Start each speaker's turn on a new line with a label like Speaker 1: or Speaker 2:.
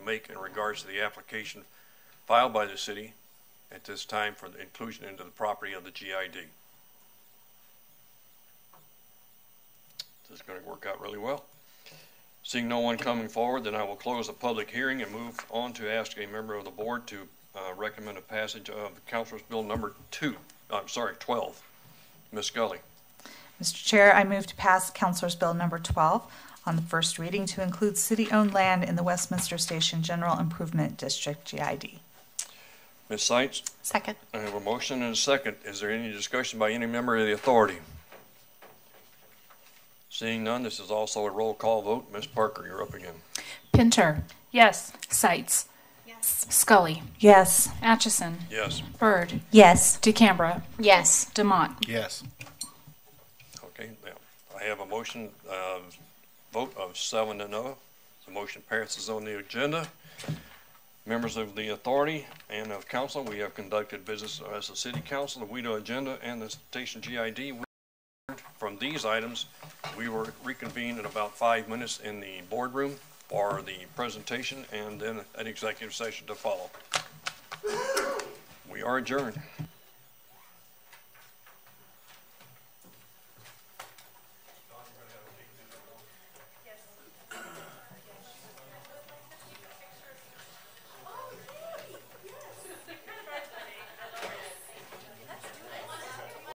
Speaker 1: make in regards to the application filed by the city at this time for the inclusion into the property of the GID. This is gonna work out really well. Seeing no one coming forward, then I will close the public hearing and move on to ask a member of the board to, uh, recommend a passage of Councilor's Bill number two, I'm sorry, twelve. Ms. Scully,
Speaker 2: Mr. Chair, I move to pass Councilor's Bill Number 12 on the first reading to include city-owned land in the Westminster Station General Improvement District, GID.
Speaker 1: Ms. Sights,
Speaker 3: Second.
Speaker 1: I have a motion and a second. Is there any discussion by any member of the authority? Seeing none, this is also a roll call vote. Ms. Parker, you're up again.
Speaker 3: Pinter.
Speaker 4: Yes.
Speaker 3: Sights. Yes. Scully.
Speaker 2: Yes.
Speaker 3: Atchison.
Speaker 1: Yes,
Speaker 3: Bird.
Speaker 2: Yes.
Speaker 3: DeCambra. Yes. Demott.
Speaker 5: Yes.
Speaker 1: okay, now, I have a motion, uh, vote of seven to no. The motion passes on the agenda. Members of the authority and of council, we have conducted business as a city council, the WIDO agenda, and the station GID. We adjourned From these items, we will reconvene in about five minutes in the boardroom for the presentation and then an executive session to follow. We are adjourned.